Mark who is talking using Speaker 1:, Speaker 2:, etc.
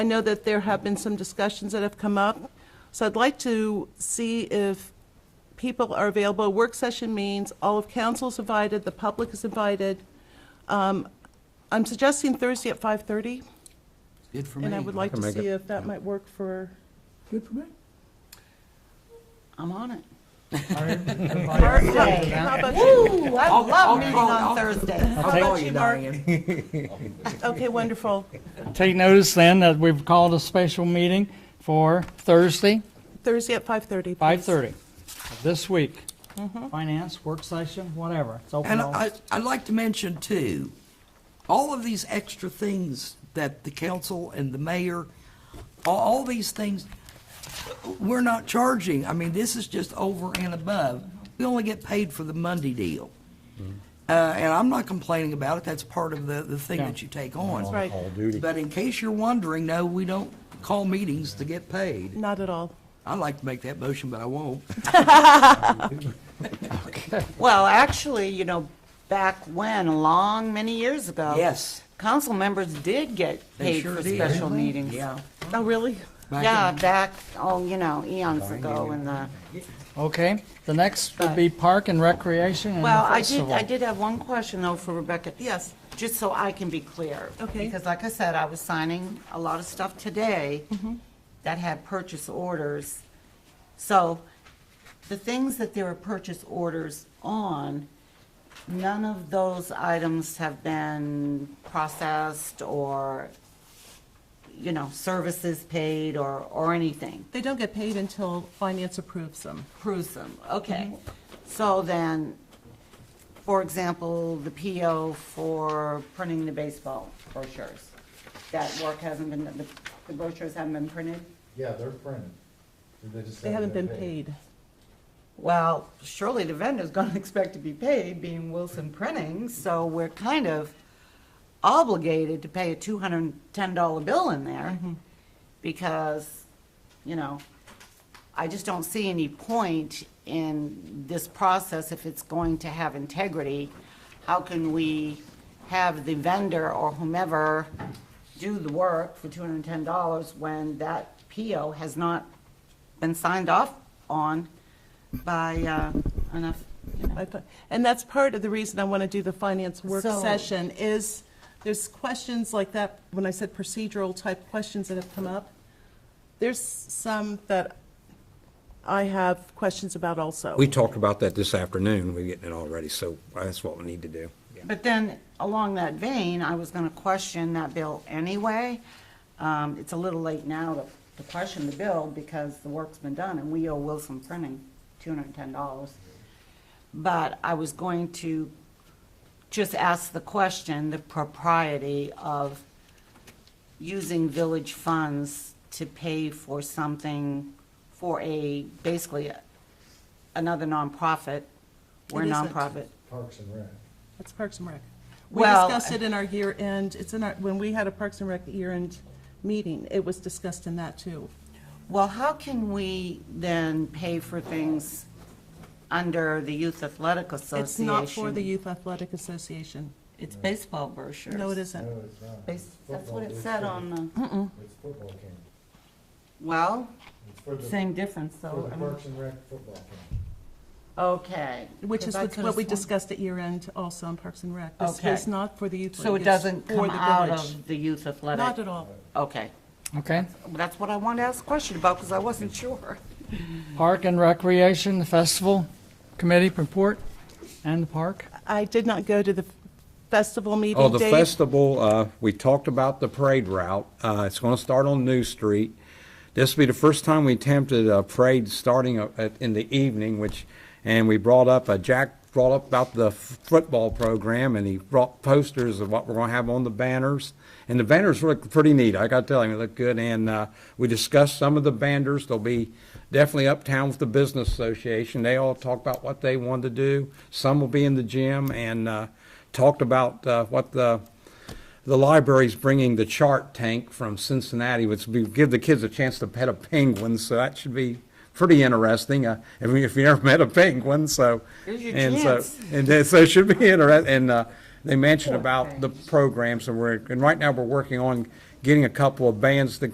Speaker 1: I know that there have been some discussions that have come up, so I'd like to see if people are available. Work session means all of council's invited, the public is invited. Um, I'm suggesting Thursday at 5:30,
Speaker 2: Good for me.
Speaker 1: and I would like
Speaker 3: can
Speaker 1: to
Speaker 3: make
Speaker 1: see
Speaker 3: it.
Speaker 1: if that might work for,
Speaker 2: Good for me.
Speaker 4: I'm on it.
Speaker 1: Mark,
Speaker 2: I'll
Speaker 1: how about you?
Speaker 4: I
Speaker 2: I'll- I'll
Speaker 4: love meeting
Speaker 2: call- I'll-
Speaker 4: on Thursday.
Speaker 1: How
Speaker 2: tell
Speaker 1: about
Speaker 2: you,
Speaker 1: you, Mark?
Speaker 2: Diane.
Speaker 1: Okay, wonderful.
Speaker 5: Take notice then that we've called a special meeting for Thursday,
Speaker 1: Thursday at 5:30. please.
Speaker 5: 5:30 of this week.
Speaker 4: Mm-hmm.
Speaker 5: Finance, work session, whatever. It's open
Speaker 2: And
Speaker 5: all-
Speaker 2: I, I'd like to mention too, all of these extra things that the council and the mayor, all, all these things, we're not charging. I mean, this is just over and above. We only get paid for the Monday deal.
Speaker 1: Mm-hmm.
Speaker 2: Uh, and I'm not complaining about it. That's part of the, the thing
Speaker 5: Yeah.
Speaker 2: that you take on.
Speaker 1: That's right.
Speaker 3: All duty.
Speaker 2: But in case you're wondering, no, we don't call meetings to get paid.
Speaker 1: Not at all.
Speaker 2: I'd like to make that motion, but I won't.
Speaker 4: Well, actually, you know, back when, a long, many years ago.
Speaker 2: Yes.
Speaker 4: Council members did get
Speaker 2: They
Speaker 4: paid
Speaker 2: sure
Speaker 4: for
Speaker 2: did.
Speaker 4: special meetings.
Speaker 2: Yeah.
Speaker 1: Oh, really?
Speaker 2: Back
Speaker 4: Yeah,
Speaker 2: in-
Speaker 4: back, oh, you know, eons ago in the,
Speaker 5: Okay, the next would be park and recreation and
Speaker 4: well,
Speaker 5: the
Speaker 4: I did,
Speaker 5: festival.
Speaker 4: I did have one question though for Rebecca.
Speaker 1: Yes.
Speaker 4: Just so I can be clear.
Speaker 1: Okay.
Speaker 4: Because like I said, I was signing a lot of stuff today that had purchase orders. So the things that there are purchase orders on, none of those items have been processed or, you know, services paid or, or anything.
Speaker 1: They don't get paid until finance approves them.
Speaker 4: Approves them, okay. So then, for example, the PO for printing the baseball brochures, that work hasn't been, the- the brochures haven't been printed?
Speaker 6: Yeah, they're printed. They just
Speaker 1: They haven't been paid.
Speaker 4: Well, surely the vendor's gonna expect to be paid, being Wilson Printing, so we're kind of obligated to pay a two hundred and ten dollar bill in there, because, you know, I just don't see any point in this process if it's going to have integrity. How can we have the vendor or whomever do the work for two hundred and ten dollars when that PO has not been signed off on by uh, enough, you know?
Speaker 1: I thought- And that's part of the reason I want to do the finance work
Speaker 4: So-
Speaker 1: session is, there's questions like that, when I said procedural type questions that have come up. There's some that I have questions about also.
Speaker 3: We talked about that this afternoon, we're getting it already, so that's what we need to do.
Speaker 4: But then, along that vein, I was going to question that bill anyway. Um, It's a little late now to to question the bill because the work's been done, and we owe Wilson Printing $210. But I was going to just ask the question, the propriety of using village funds to pay for something for a, basically, a- another nonprofit. We're a
Speaker 1: It isn't.
Speaker 4: nonprofit.
Speaker 6: Parks and Rec.
Speaker 1: That's Parks and Rec. We
Speaker 4: Well-
Speaker 1: discussed it in our year-end, it's in our, when we had a Parks and Rec year-end meeting, it was discussed in that too.
Speaker 4: Well, how can we then pay for things under the Youth Athletic Oh, Association?
Speaker 1: It's not for the Youth Athletic Association.
Speaker 4: It's baseball brochures.
Speaker 1: No, it Mm-hmm.
Speaker 6: No,
Speaker 1: isn't.
Speaker 6: it's not.
Speaker 4: Base- That's what it
Speaker 6: Football,
Speaker 4: said on the,
Speaker 6: it's- It's football camp.
Speaker 4: well,
Speaker 6: It's for the,
Speaker 4: same difference,
Speaker 6: for
Speaker 4: though.
Speaker 6: the
Speaker 4: I
Speaker 1: um,
Speaker 4: mean-
Speaker 6: Parks and Rec football camp.
Speaker 4: Okay.
Speaker 1: Which
Speaker 4: 'cause
Speaker 1: is
Speaker 4: I
Speaker 1: what
Speaker 4: could've
Speaker 1: what we
Speaker 4: sworn-
Speaker 1: discussed at year-end also in Parks and Rec. This
Speaker 4: Okay.
Speaker 1: was not for the youth.
Speaker 4: So
Speaker 1: league,
Speaker 4: it
Speaker 1: it's
Speaker 4: doesn't
Speaker 1: for
Speaker 4: come
Speaker 1: the
Speaker 4: out
Speaker 1: village.
Speaker 4: of the Youth Athletic?
Speaker 1: Not at all.
Speaker 4: Okay.
Speaker 5: Okay,
Speaker 4: Well, That's what I wanted to ask a question about, because I wasn't sure.
Speaker 5: park and recreation, the festival committee report and the park.
Speaker 1: I did not go to the festival meeting,
Speaker 3: Oh, the
Speaker 1: Dave.
Speaker 3: festival, uh, we talked about the parade route. Uh, It's going to start on New Street. This will be the first time we attempted a parade starting a- at- in the evening, which, and we brought up, uh, Jack brought up about the f- football program, and he brought posters of what we're going to have on the banners. And the banners look pretty neat, I got to tell you, they look good. And uh, we discussed some of the banners, they'll be definitely uptown with the Business Association. They all talk about what they wanted to do. Some will be in the gym, and uh, talked about uh, what the, the library's bringing the chart tank from Cincinnati, which will give the kids a chance to pet a penguin, so that should be pretty interesting, uh, if you- if you never met a penguin, so.
Speaker 4: Here's your
Speaker 3: and so-
Speaker 4: chance.
Speaker 3: And then- so it should be interesting, and uh, they mentioned about the programs, and we're, and right now, we're working on getting a couple of bands to